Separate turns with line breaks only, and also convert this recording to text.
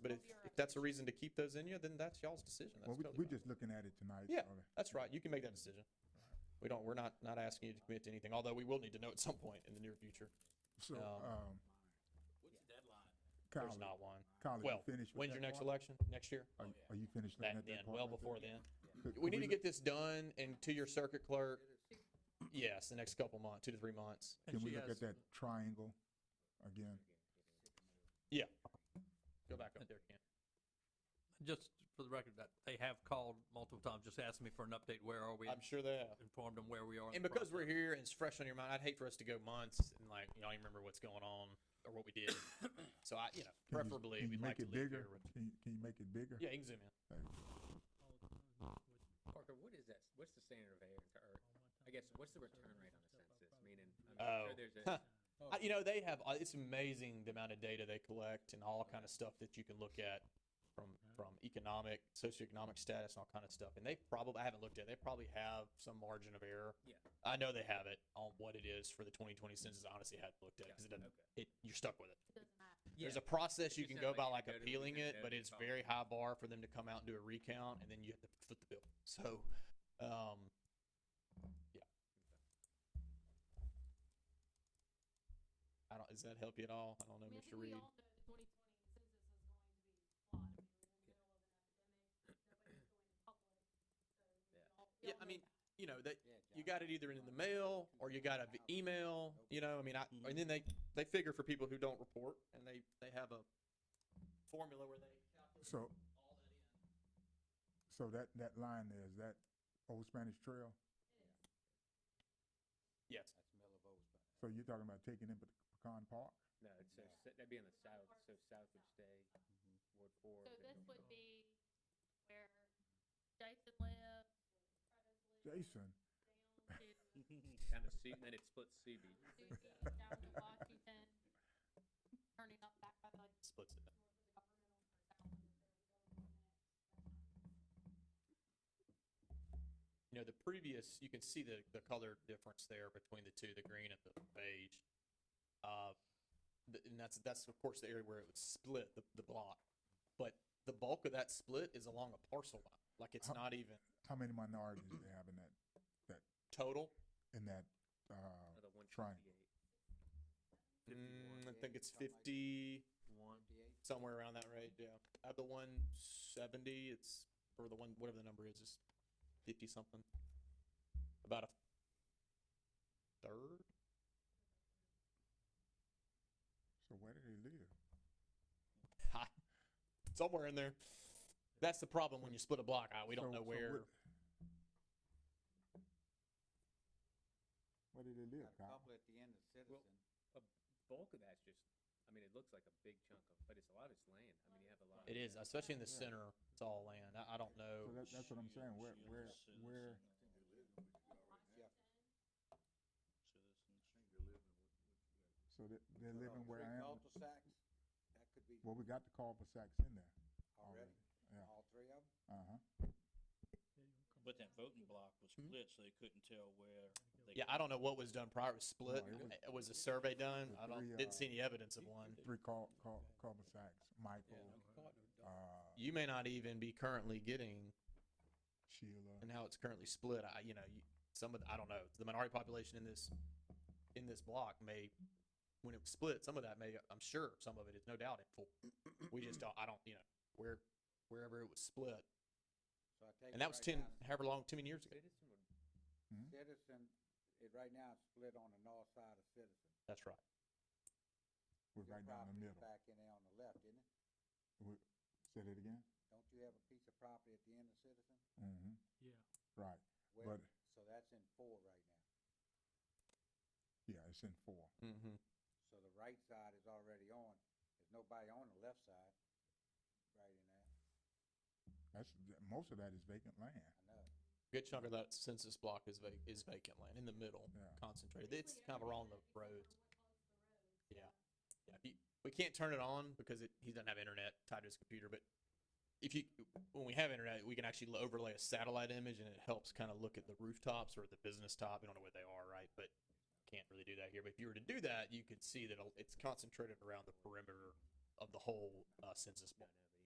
But if, if that's a reason to keep those in you, then that's y'all's decision. That's
Well, we,
totally
we're
fine.
just looking at it tonight.
Yeah,
so-
That's right. You can make that decision. We don't, we're not, not asking you to commit to anything, although we will need to know at some point in the near future.
So,
um,
um,
What's the deadline?
There's
Kyle,
not one.
Kyle, are you
Well,
finished with
when's your
that
next
part?
election? Next year?
Are you- Are you finished looking
That
at
then,
that part?
well
right
before
there?
then.
Could- could
We need to
look-
get this done and to your circuit clerk, yes, the next couple months, two to three months.
And
Can we
she
look
has-
at that triangle again?
Go back up there, Ken.
Just for the record, that they have called multiple times, just asking me for an update, where are we?
I'm sure they have.
Informed them where we are. in
And
the
because we're
process.
here and it's fresh on your mind, I'd hate for us to go months and like, y'all remember what's going on or what we did. So I, you know,
Can you-
preferably,
can
we'd
you make
like to
it
leave
bigger?
here with.
Can you, can you make it bigger?
Yeah, you can zoom in.
Parker, what is that, what's the standard of error, or, I guess, what's the return rate on a census, meaning, I'm
Oh.
sure there's
Huh. I,
a,
you know they have uh, it's amazing the amount of data they collect and all kind of stuff that you can look at from from economic socioeconomic status and all kind of stuff and they probably i haven't looked at it, they probably have some margin of error
Yeah.
i know they have it on what it is for the 2020 census i honestly hadn't looked at it because it doesn't it
okay.
you're stuck with it there's
Yeah.
a process
It's
you can
just not
go
like
by
you
like
go to the
appealing
internet
it
and
but
go
it's
file.
very high bar for them to come out and do a recount and then you have to foot the bill so um yeah i don't does that help you at all i don't know
I mean, I
mr
think we
reed
all know the twenty twenty census is going to be flawed. I mean, we're in the middle of an epidemic. Nobody's going public. So we
Yeah.
all- we
yeah
all
i
know
mean
that.
you know that you got it either in the mail or you got an email you know i mean I, and then they they figure for people who don't report and they they have a formula where they calculate
So,
all that in
so that, that line there, is that Old Spanish Trail?
yes
So you're talking about taking in Pecan Park?
no, it's, so s- that'd be on the south, so south would stay, Ward four.
So
then
this
Ward five.
would be where Jason lives, where
Jason,
Curtis lives,
Down to Su- then it splits Subi.
down to Susie, down to Washington, turning up back by like.
splits it up. You know, the previous, you can see the, the color difference there between the two, the green and the beige. Uh, th- and that's, that's of course the area where it would split the, the block. But the bulk of that split is along a parcel line, like it's
How-
not even
how many minorities do they have in that,
total.
in that, uh,
Another one
Trying.
fifty-eight.
Mm, I think it's fifty,
One.
somewhere around that rate, yeah. At the one seventy, it's, or the one, whatever the number is, is fifty something. About a third?
so where do they live?
Ha. Somewhere in there. That's the problem when you split a block out. We
So-
don't
so
know
what-
where.
Where do they live, Kyle?
Probably at the end of Citizen.
Bulk of that's just, I mean, it looks like a big chunk of, but it's a lot of it's land, I mean, you have a lot.
It is, especially in the
Yeah.
center. It's all land. I, I don't
So
know.
that, that's what I'm saying, where, where, where,
Yeah.
so they, they're living where I am,
Cul-de-sacs, that could be
well, we got the cul-de-sacs in there already,
already,
yeah,
all three of them.
uh-huh.
But that voting block was
Hmm?
split, so they couldn't tell where. they-
Yeah, I don't know what was done prior. It was split.
it was-
It was a survey done.
the
I don't,
three, uh,
didn't see any evidence of one.
Three cul, cul, cul-de-sacs, Michael, uh,
You may not even be currently getting
Sheila.
and how it's currently split. I, you know, you, some of, the- I don't know, the minority population in this, in this block may, when it was split, some of that may, I'm sure some of it is no doubt in full. We just don't, I don't, you know, where, wherever it was split.
So I take.
And
it
that was
right
ten,
now,
however long, too many years ago.
Citizen would,
Citizen, it right now is split on the north side of Citizen.
That's right.
We're
Your
right down the
property is
middle.
Back in there on the left, isn't it?
We- Say that again?
Don't you have a piece of property at the end of Citizen?
Mm-hmm,
Yeah.
right,
Where-
but,
So that's in four right now.
yeah, it's in four.
Mm-hmm.
So the right side is already on. There's nobody on the left side, right in there.
That's, th- most of that is vacant land.
I know.
Good chunk of that census block is vac is vacant land in the middle,
Yeah.
concentrated.
Basically
It's kind of
everything
along the
except for
roads.
what closes the
Yeah.
roads, so-
Yeah, he, we can't turn it on because it, he doesn't have internet tied to his computer. But if you, when we have internet, we can actually lo- overlay a satellite image, and it helps kind of look at the rooftops or the business top. We don't know where they are, right? But can't really do that here. But if you were to do that, you could see that it'll- it's concentrated around the perimeter of the whole uh, census block.